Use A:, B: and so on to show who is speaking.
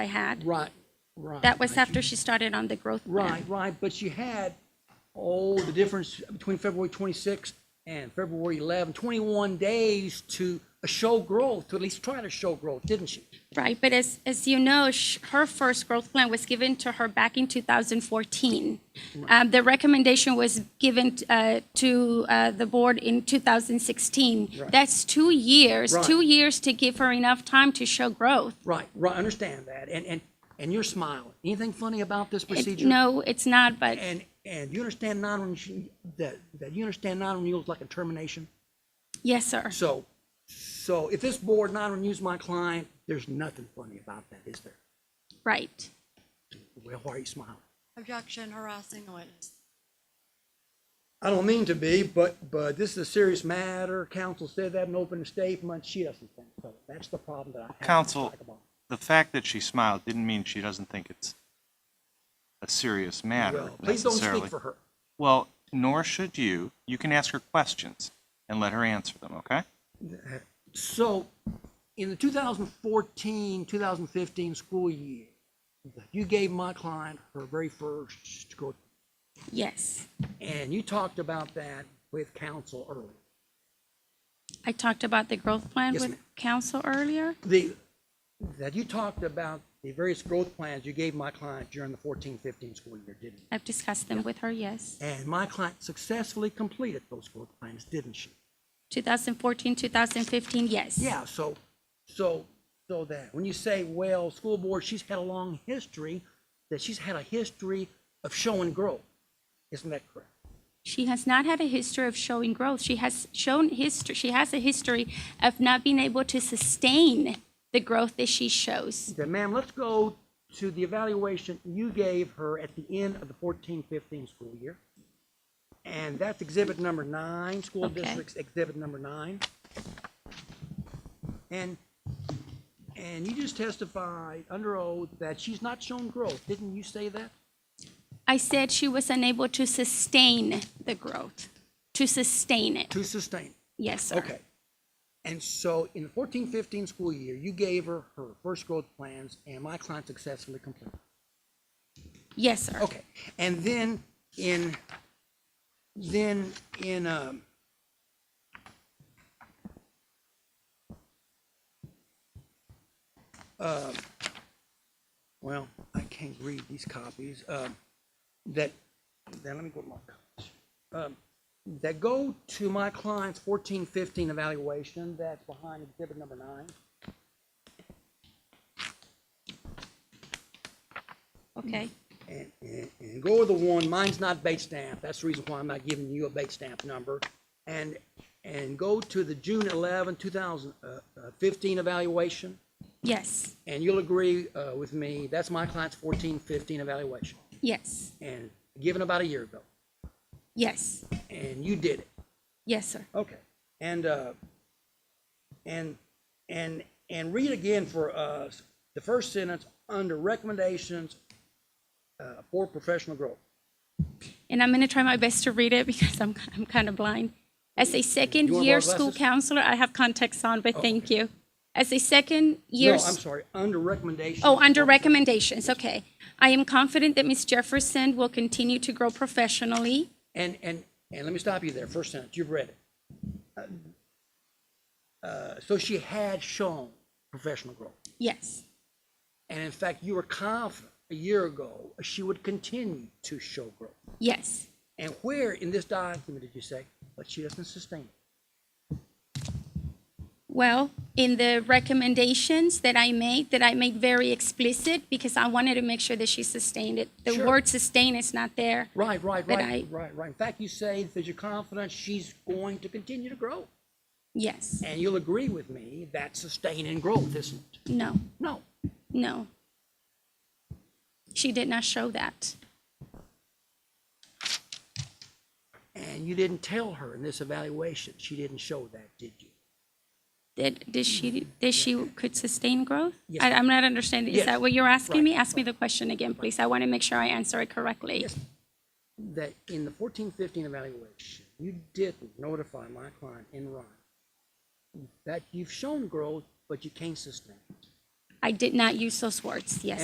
A: I had.
B: Right, right.
A: That was
B: But
A: after she started on the growth
B: you-
A: plan.
B: Right, right, but you had, oh, the difference between February twenty-sixth and February 11, 21 days to show growth, to at least try to show growth, didn't you?
A: Right, but as, as you know, sh- her first growth plan was given to her back in 2014. Um, The recommendation was given uh, to uh, the board in 2016.
B: Right.
A: That's two years,
B: Right.
A: two years to give her enough time to show growth.
B: Right, right, I understand that, and, and, and you're smiling. Anything funny about this
A: It-
B: procedure?
A: No, it's not, but
B: And, and you understand non-renewal, that, that you understand non-renewal is like a termination?
A: yes, sir.
B: So, so if this board non-renews my client, there's nothing funny about that, is there?
A: Right.
B: Well, why are you smiling?
C: Objection, harassing a witness.
B: I don't mean to be, but, but this is a serious matter. Council said that in open statement. She doesn't think so. That's the problem that I have. with
D: Counsel.
B: Mike Bond.
D: The fact that she smiled didn't mean she doesn't think it's a serious matter
B: Well, please don't
D: necessarily.
B: speak for her.
D: Well, nor should you. You can ask her questions and let her answer them, okay?
B: So, in the 2014, 2015 school year, you gave my client her very first growth,
A: Yes.
B: and you talked about that with council earlier.
A: I talked about the growth plan
B: Yes,
A: with
B: ma'am.
A: council earlier.
B: The, that you talked about the various growth plans you gave my client during the 14, 15 school year, didn't you?
A: I've discussed them with her, yes.
B: And my client successfully completed those growth plans, didn't she?
A: 2014, 2015, yes.
B: Yeah, so, so, so that, when you say, well, school board, she's had a long history, that she's had a history of showing growth. Isn't that correct?
A: She has not had a history of showing growth. She has shown history. She has a history of not being able to sustain the growth that she shows.
B: Then ma'am, let's go to the evaluation you gave her at the end of the fourteen fifteen school year. And that's exhibit number nine, school
A: Okay.
B: districts exhibit number nine. And, and you just testified under oath that she's not shown growth, didn't you say that?
A: I said she was unable to sustain the growth, to sustain it.
B: To sustain.
A: Yes, sir.
B: Okay. And so in the fourteen fifteen school year, you gave her her first growth plans and my client successfully completed.
A: Yes, sir.
B: Okay, and then in, then in, um, um, well, I can't read these copies, um, that, then let me go to my copies. Um, That go to my client's fourteen fifteen evaluation that's behind exhibit number nine.
A: Okay.
B: and, and, and go with the one, mine's not bait stamp, that's the reason why I'm not giving you a bait stamp number. And, and go to the June 11, 2015 uh, evaluation,
A: Yes.
B: and you'll agree uh, with me, that's my client's 14, 15 evaluation,
A: Yes.
B: and given about a year ago,
A: Yes.
B: and you did it.
A: Yes, sir.
B: Okay, and, uh, and, and, and read again for us, the first sentence, under recommendations uh, for professional growth.
A: and I'm going to try my best to read it because I'm, I'm kind of blind. As a second
B: You wanna
A: year
B: borrow
A: school
B: glasses? Oh,
A: counselor, I have contacts on, but thank you. As a second year.
B: No, I'm sorry, under recommendations.
A: Oh, under
B: for-
A: recommendations, okay. I am confident that Ms. Jefferson will continue to grow professionally.
B: And, and, and let me stop you there, first sentence, you've read it. Uh, So she had shown professional growth,
A: Yes,
B: and in fact, you were confident a year ago she would continue to show growth.
A: yes.
B: And where in this document did you say, but she doesn't sustain it?
A: Well, in the recommendations that I made, that I made very explicit because I wanted to make sure that she sustained it. The
B: Sure.
A: word sustain is not there.
B: Right, right,
A: But
B: right,
A: I-
B: right, right. In fact, you say that you're confident she's going to continue to grow.
A: Yes,
B: And you'll agree with me, that's sustaining growth, isn't it?
A: no,
B: No,
A: no. She did not show that.
B: and you didn't tell her in this evaluation, she didn't show that, did you?
A: Did, did she, that she could sustain growth?
B: Yes,
A: I,
B: ma'am.
A: I'm not understanding. Is
B: Yes.
A: that what you're asking
B: Right,
A: me? Ask me the question again, please. I want to make sure I answer it correctly.
B: Yes. that in the fourteen fifteen evaluation, you didn't notify my client in writing that you've shown growth, but you can't sustain it.
A: I did not use those words, yes.